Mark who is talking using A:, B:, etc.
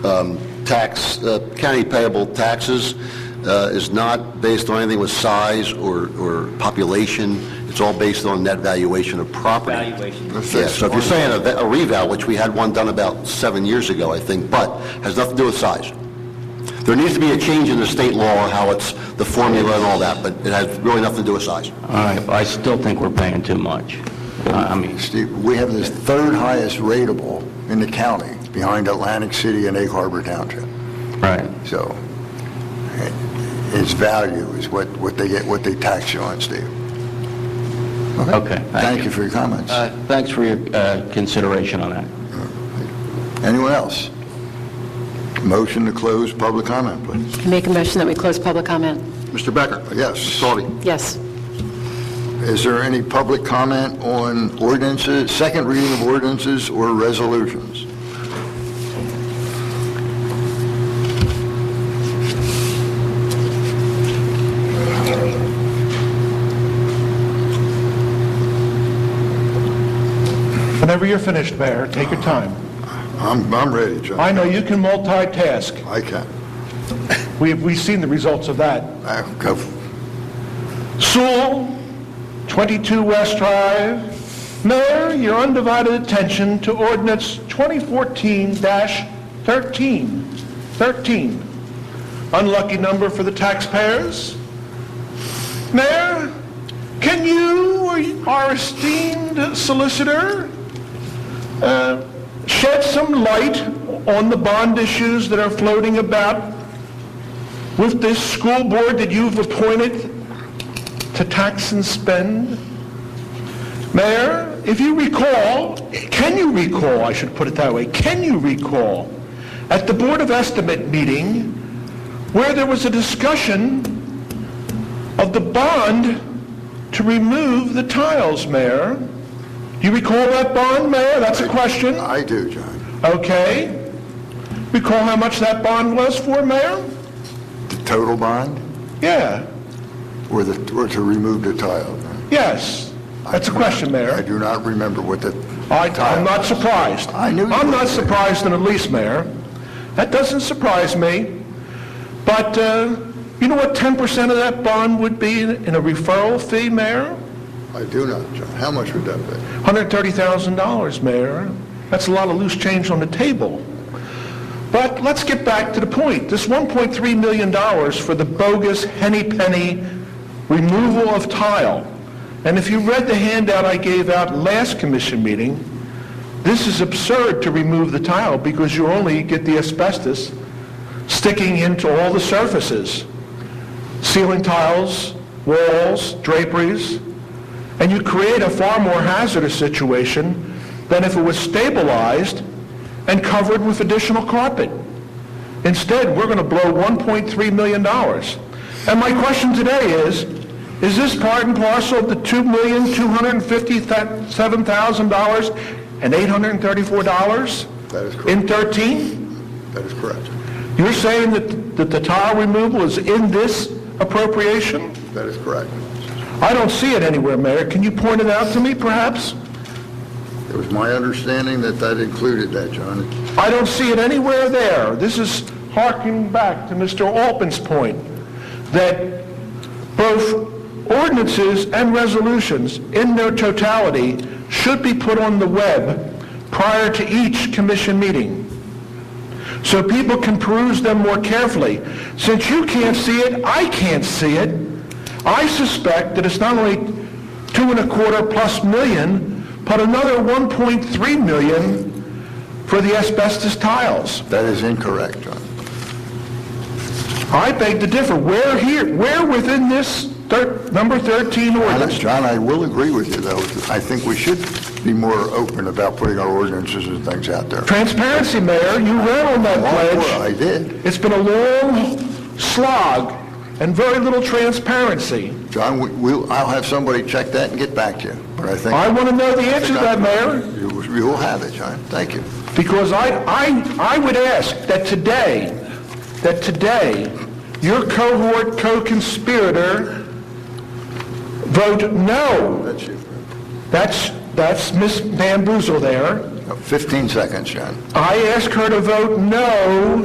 A: um, tax, uh, county payable taxes uh, is not based on anything with size or, or population. It's all based on net valuation of property.
B: Valuation.
A: Yeah, so if you're saying a va- a reval, which we had one done about seven years ago, I think, but has nothing to do with size. There needs to be a change in the state law on how it's, the formula and all that, but it has really nothing to do with size.
C: All right, but I still think we're paying too much. I I mean,
D: Steve, we have the third highest rateable in the county, behind Atlantic City and Egg Harbor Township.
C: right.
D: So it- its value is what, what they get, what they tax you on, Steve.
C: Okay, thank
D: Thank
C: you.
D: you for your comments.
C: Uh, Thanks for your uh, consideration on that.
D: Anyone else? Motion to close public comment, please.
E: Make a motion that we close public comment.
A: Mr. Becker?
D: Yes.
E: Yes.
D: Is there any public comment on ordinances, second reading of ordinances or resolutions?
F: Whenever you're finished, Mayor, take your time.
D: I'm, I'm ready, John.
F: I know you can multitask.
D: I can.
F: We've, we've seen the results of that.
D: I- go.
F: Sewell, 22 West Drive. Mayor, your undivided attention to ordinance 2014-13. 13. Unlucky number for the taxpayers. Mayor, can you or y- our esteemed solicitor uh, shed some light on the bond issues that are floating about with this school board that you've appointed to tax and spend? Mayor, if you recall, can you recall, I should put it that way, can you recall at the Board of Estimate meeting where there was a discussion of the bond to remove the tiles, Mayor? You recall that bond, Mayor? That's a question.
D: I do, John.
F: Okay. Recall how much that bond was for, Mayor?
D: The total bond
F: Yeah,
D: or the, or to remove the tile?
F: yes. That's a question, Mayor.
D: I do not remember what the
F: I-
D: tile
F: I'm not
D: was.
F: surprised.
D: I knew you
F: I'm
D: were.
F: not surprised in the least, Mayor. That doesn't surprise me. But uh, you know what 10% of that bond would be in in a referral fee, Mayor?
D: I do not, John. How much would that be?
F: $130,000, Mayor. That's a lot of loose change on the table. But let's get back to the point. This $1.3 million for the bogus henny penny removal of tile. And if you read the handout I gave out last commission meeting, this is absurd to remove the tile because you only get the asbestos sticking into all the surfaces. Ceiling tiles, walls, draperies, and you create a far more hazardous situation than if it was stabilized and covered with additional carpet. Instead, we're going to blow $1.3 million. And my question today is, is this part and parcel of the $2,257,000 and $834?
D: That is correct.
F: In 13?
D: That is correct.
F: You're saying that, that the tile removal is in this appropriation?
D: That is correct.
F: I don't see it anywhere, Mayor. Can you point it out to me, perhaps?
D: It was my understanding that that included that, John.
F: I don't see it anywhere there. This is harking back to Mr. Alpin's point, that both ordinances and resolutions in their totality should be put on the web prior to each commission meeting, so people can peruse them more carefully. Since you can't see it, I can't see it. I suspect that it's not only two and a quarter plus million, but another 1.3 million for the asbestos tiles.
D: That is incorrect, John.
F: I beg to differ. Where here, where within this thir- number 13
D: And,
F: ordinance?
D: John, I will agree with you, though. I think we should be more open about putting our ordinances and things out there.
F: Transparency, Mayor, you ran on that
D: Well, I
F: pledge.
D: did.
F: It's been a long slog and very little transparency.
D: John, we- we'll, I'll have somebody check that and get back to you, but I think...
F: I want to know the answer to that, Mayor.
D: You you will have it, John. Thank you.
F: Because I, I, I would ask that today, that today, your cohort co-conspirator vote no. That's, that's Miss Van Boozle there.
D: 15 seconds, John.
F: I ask her to vote no